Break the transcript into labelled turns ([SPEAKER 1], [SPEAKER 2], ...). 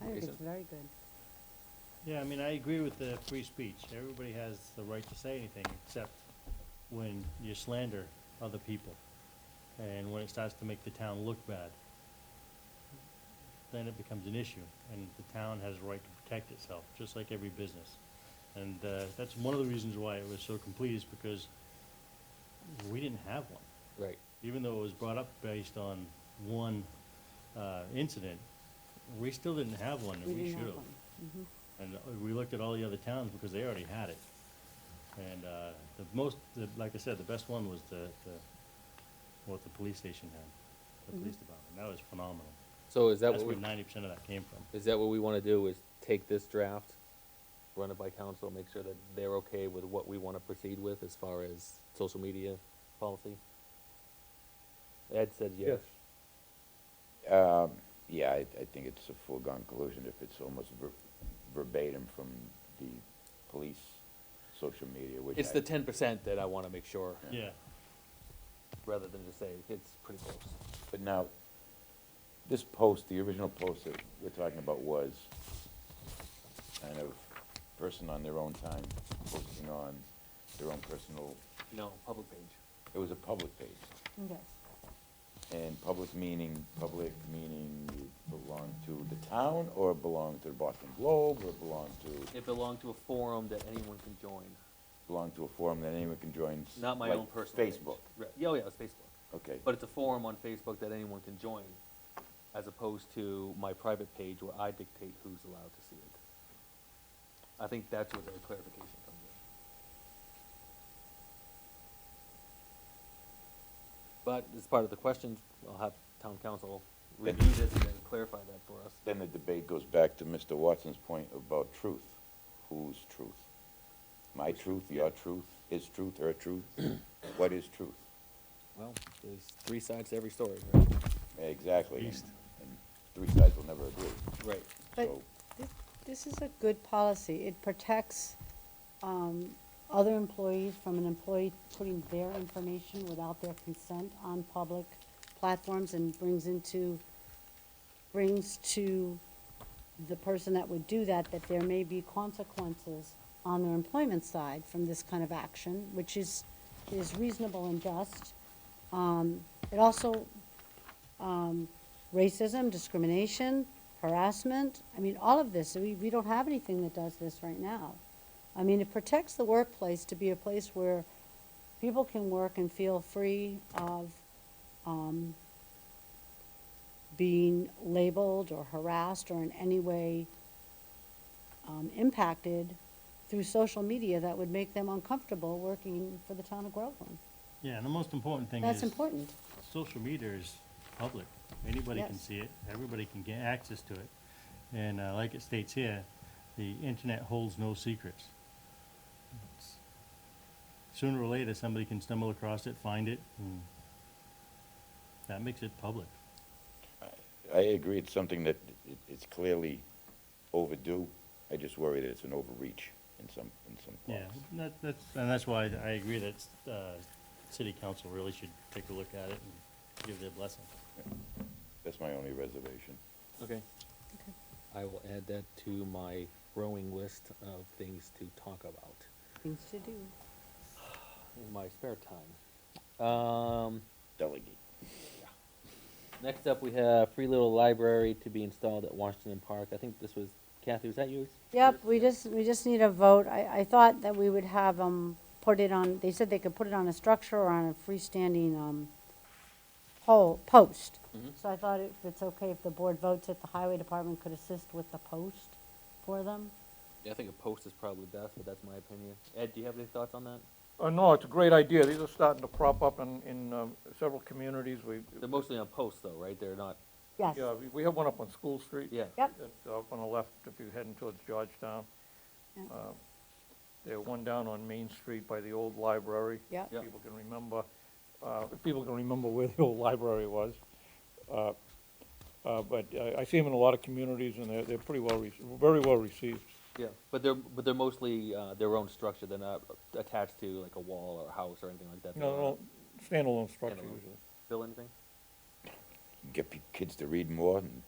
[SPEAKER 1] good,
[SPEAKER 2] Jason?
[SPEAKER 1] it's very good.
[SPEAKER 3] Yeah, I mean, I agree with the free speech. Everybody has the right to say anything, except when you slander other people. And when it starts to make the town look bad, then it becomes an issue. And the town has a right to protect itself, just like every business. And uh, that's one of the reasons why it was so complete, is because we didn't have one
[SPEAKER 2] Right.
[SPEAKER 3] even though it was brought up based on one uh, incident, we still didn't have one,
[SPEAKER 1] We
[SPEAKER 3] and we
[SPEAKER 1] didn't
[SPEAKER 3] should
[SPEAKER 1] have
[SPEAKER 3] have.
[SPEAKER 1] one.
[SPEAKER 3] And uh, we looked at all the other towns because they already had it. And uh, the most, the- like I said, the best one was the, the- what the police station had, the police department. That was phenomenal.
[SPEAKER 2] So is that
[SPEAKER 3] That's
[SPEAKER 2] what we,
[SPEAKER 3] where ninety percent of that came from.
[SPEAKER 2] is that what we wanna do, is take this draft, run it by council, make sure that they're okay with what we wanna proceed with as far as social media policy? Ed said yes.
[SPEAKER 4] Um, yeah, I, I think it's a foregone conclusion if it's almost ver- verbatim from the police social media, which
[SPEAKER 2] It's
[SPEAKER 4] I-
[SPEAKER 2] the ten percent that I wanna make sure,
[SPEAKER 3] Yeah,
[SPEAKER 2] rather than just say, it's pretty close.
[SPEAKER 4] But now, this post, the original post that we're talking about was kind of person on their own time, posting on their own personal,
[SPEAKER 2] No, public page.
[SPEAKER 4] it was a public page.
[SPEAKER 1] Yes,
[SPEAKER 4] And public meaning, public meaning it belonged to the town, or it belonged to the Boston Globe, or it belonged to
[SPEAKER 2] It belonged to a forum that anyone can join,
[SPEAKER 4] belong to a forum that anyone can join. s-
[SPEAKER 2] not my
[SPEAKER 4] like
[SPEAKER 2] own personal page.
[SPEAKER 4] Facebook,
[SPEAKER 2] Right. Yeah, oh yeah, it's Facebook.
[SPEAKER 4] okay.
[SPEAKER 2] But it's a forum on Facebook that anyone can join, as opposed to my private page where I dictate who's allowed to see it. I think that's where the clarification comes in. But as part of the questions, I'll have town council review this and then clarify that for us.
[SPEAKER 4] Then the debate goes back to Mr. Watson's point about truth. Whose truth? My truth, your truth, his truth, her truth? What is truth?
[SPEAKER 2] Well, there's three sides to every story, right?
[SPEAKER 4] Exactly. and-
[SPEAKER 3] East.
[SPEAKER 4] And three sides will never agree.
[SPEAKER 2] Right.
[SPEAKER 1] but
[SPEAKER 4] So,
[SPEAKER 1] thi- this is a good policy. It protects, um, other employees from an employee putting their information without their consent on public platforms and brings into, brings to the person that would do that, that there may be consequences on their employment side from this kind of action, which is, is reasonable and just. Um, it also racism, discrimination, harassment. I mean, all of this, we, we don't have anything that does this right now. I mean, it protects the workplace to be a place where people can work and feel free of, um, being labeled or harassed or in any way, um, impacted through social media that would make them uncomfortable working for the town of Groveland.
[SPEAKER 3] yeah, and the most important thing is.
[SPEAKER 1] That's important.
[SPEAKER 3] social media is public. Anybody can
[SPEAKER 1] Yes.
[SPEAKER 3] see it. Everybody can get access to it. And uh, like it states here, the internet holds no secrets. It's- Sooner or later, somebody can stumble across it, find it, and that makes it public.
[SPEAKER 4] I agree, it's something that it- it's clearly overdue. I just worry that it's an overreach in some, in some
[SPEAKER 3] Yeah,
[SPEAKER 4] parts.
[SPEAKER 3] that, that's, and that's why I agree that uh, city council really should take a look at it and give their blessing.
[SPEAKER 4] That's my only reservation.
[SPEAKER 2] Okay. I will add that to my growing list of things to talk about.
[SPEAKER 1] Things to do.
[SPEAKER 2] in my spare time. Um,
[SPEAKER 4] Delegate.
[SPEAKER 2] next up, we have free little library to be installed at Washington Park. I think this was Kathy. Was that yours?
[SPEAKER 1] Yep, we just, we just need a vote. I, I thought that we would have them put it on, they said they could put it on a structure or on a freestanding, um, pole, post.
[SPEAKER 2] Mhm.
[SPEAKER 1] So I thought if it's okay if the board votes it, the highway department could assist with the post for them.
[SPEAKER 2] Yeah, I think a post is probably best, but that's my opinion. Ed, do you have any thoughts on that?
[SPEAKER 5] Uh, no, it's a great idea. These are starting to crop up in, in um, several communities. We,
[SPEAKER 2] They're mostly on posts, though, right? They're not.
[SPEAKER 1] Yes.
[SPEAKER 5] yeah, we- we have one up on School Street.
[SPEAKER 2] Yeah.
[SPEAKER 1] Yep,
[SPEAKER 5] That's up on the left if you're heading towards Georgetown.
[SPEAKER 1] Yeah.
[SPEAKER 5] Uh, There, one down on Main Street by the old library.
[SPEAKER 1] yep.
[SPEAKER 2] Yeah.
[SPEAKER 5] People can remember, uh, if people can remember where the old library was. Uh, uh, But I, I see them in a lot of communities and they're, they're pretty well, rec- very well received.
[SPEAKER 2] Yeah, but they're but they're mostly uh, their own structure. They're not attached to like a wall or a house or anything like that.
[SPEAKER 5] You
[SPEAKER 2] They're
[SPEAKER 5] know, standalone structure
[SPEAKER 2] Standalone.
[SPEAKER 5] usually.
[SPEAKER 2] Bill, anything?
[SPEAKER 4] Get pe- kids to read more and